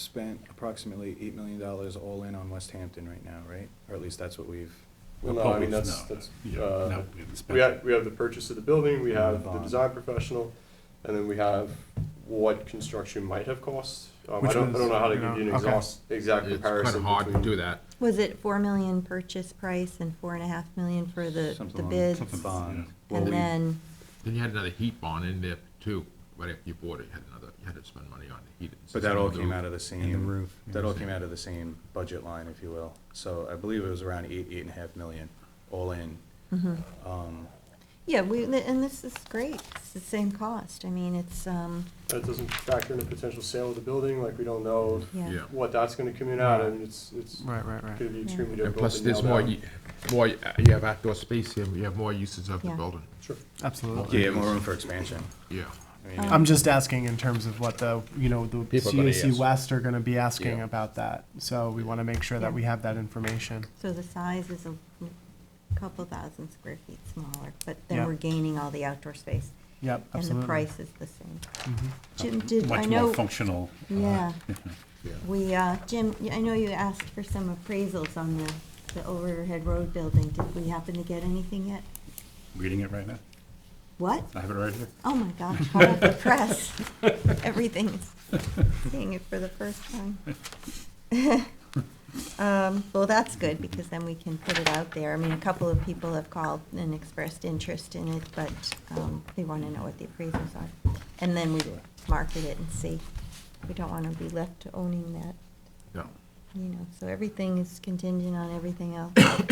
spent approximately eight million dollars all in on West Hampton right now, right? Or at least that's what we've, Well, no, I mean, that's, that's, Yeah, uh, no, we haven't spent we it. have, we have the purchase of the building, we And the have the bond. design professional, and then we have what construction might have cost. Um, I Which don't, I ones, don't know how to you give know, you an okay. exhaust, exact It's kind comparison of hard to do between. that. Was it four million purchase price and four and a half million for the, something the along- bids? something Bond. Well, we- And then, Then you had another heat bond in there too, right after you bought it, you had another, you had to spend money on the heat. But that all came out of the same. And the roof, yeah. That all came out of the same budget line, if you will. So I believe it was around eight, eight and a half million, all in. Um, yeah, we, and this is great, it's the same cost, I mean, it's, um, That doesn't factor in a potential sale of the building, like, we don't know yeah. Yeah. what that's gonna come in at, and it's, it's Right, right, right. gonna be extremely And difficult. plus, to there's nail more, down. you- more, uh, you have outdoor space here, you have more uses of the Yeah. building, Sure. Yeah, Absolutely. you have more room for expansion. yeah. I mean, I'm just asking in terms of what the, you know, the People are gonna CAC ask. West are gonna be asking Yeah. about that. So we wanna make sure that we have that information. So the size is a couple thousand square feet smaller, but then Yeah. we're gaining all the outdoor space. Yep, And the absolutely. price is the same. Jim, did, I Much know, more functional. uh, yeah, Yeah. we, uh, Jim, y- I know you asked for some appraisals on the, the overhead road building, did we happen to get anything yet? Reading it right now. What? I have it right here. Oh my gosh, hot off the press. Everything is seeing it for the first time. Um, Well, that's good, because then we can put it out there. I mean, a couple of people have called and expressed interest in it, but um, they want to know what the appraisals are. And then we market it and see. We don't want to be left owning that, No. you know, so everything is contingent on everything else. So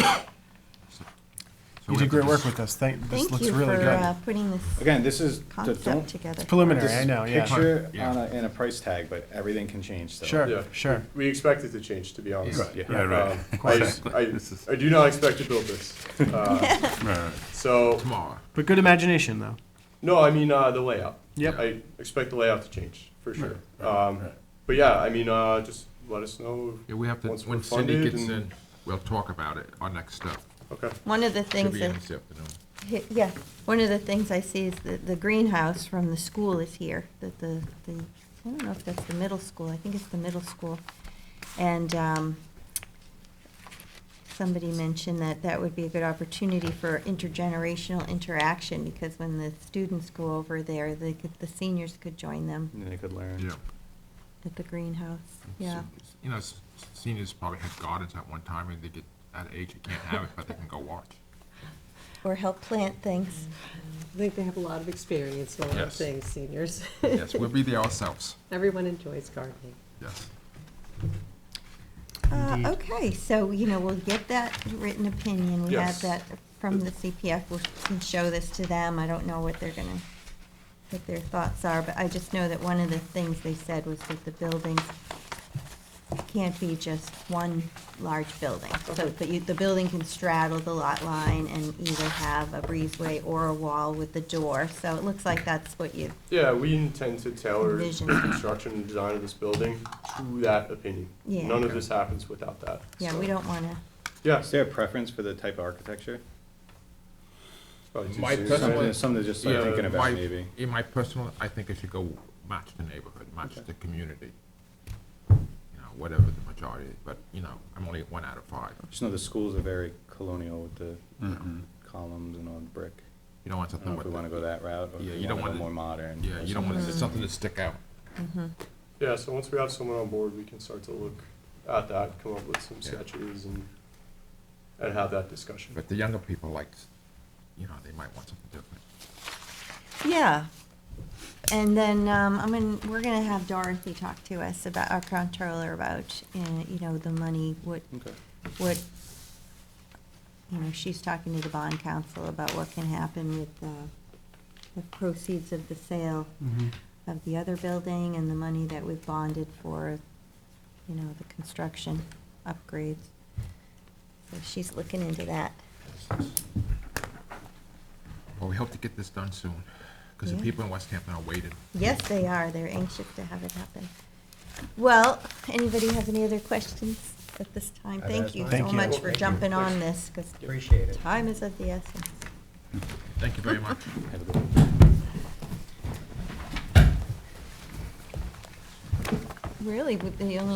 You we did have to great work just- with this. Thank, this Thank looks you really for uh, good. putting this Again, this is, don't. concept together. It's preliminary, this I is know, yeah. Picture Yeah. on a, and a price tag, but everything can change, so. Sure, Yeah. sure. We expect it to change, to be honest. Right, yeah. Right, right. Um, I, I, I do not expect to build this. Uh, Right, right. So, Tomorrow, But good imagination, though. no, I mean, uh, the layout. Yep. I expect the layout to change, for sure. Um, right. but yeah, I mean, uh, just let us know. yeah, we have to, Once we're when Cindy funded gets and- in, we'll talk about it, our next step, Okay. One of the should things be that in this afternoon. Hi- Yeah, one of the things I see is that the greenhouse from the school is here, that the, the, I don't know if that's the middle school, I think it's the middle school. And, um, somebody mentioned that that would be a good opportunity for intergenerational interaction, because when the students go over there, they could, the seniors could join them And they could learn. Yeah. at the greenhouse, yeah. S- You know, s- seniors probably had gardens at one time, and they get, at age, you can't have it, but they can go watch. Or help plant things. I think they have a lot of experience in a lot of Yes. things, seniors. Yes, we'll be there ourselves, Everyone enjoys gardening. yes. Uh, Okay, so, you know, we'll get that written opinion, we Yes. have that from the CPF, we can show this to them, I don't know what they're gonna, what their thoughts are, but I just know that one of the things they said was that the buildings can't be just one large building, so, but you, the building can straddle the lot line and either have a breezeway or a wall with a door, so it looks like that's what you, Yeah, we intend to tailor the Envision. construction and design of this building to that opinion. Yeah. None of this happens without that. yeah, so- we don't wanna, Yeah. Is there a preference for the type of architecture? it's probably too My soon. That's personal- Something what- something to just start Yeah, thinking My- about, maybe. In my personal, I think it should go match the neighborhood, match the community. You know, whatever the majority, is, but, you know, I'm only one out of five. Just know the schools are very colonial with the Mm-hmm. Mhm. columns and all the brick. You don't want I don't something know if with, we want to go that route or Yeah, if we you don't want to go wanna- more modern. yeah, or you don't something. want Mm. something to stick out. Yeah, so once we have someone on board, we can start to look at that, come up with some Yeah. sketches and, and have that discussion. But the younger people like, you know, they might want something different. Yeah. And then, um, I'm gonna, we're gonna have Dorothy talk to us about, our controller about, uh, you know, the money, what, Okay. what, you know, she's talking to the bond council about what can happen with, uh, the proceeds of the sale Mhm. of the other building and the money that we've bonded for, you know, the construction upgrades. So she's looking into that. Well, we hope to get this done soon, because the Yeah. people in West Hampton are waiting. Yes, they are. They're anxious to have it happen. Well, anybody have any other questions at this time? I've Thank asked you mine. so Thank you. much for Thank you. jumping on this, because Appreciate it. time is of the essence. Thank you very much. Have a good one. Really, with the only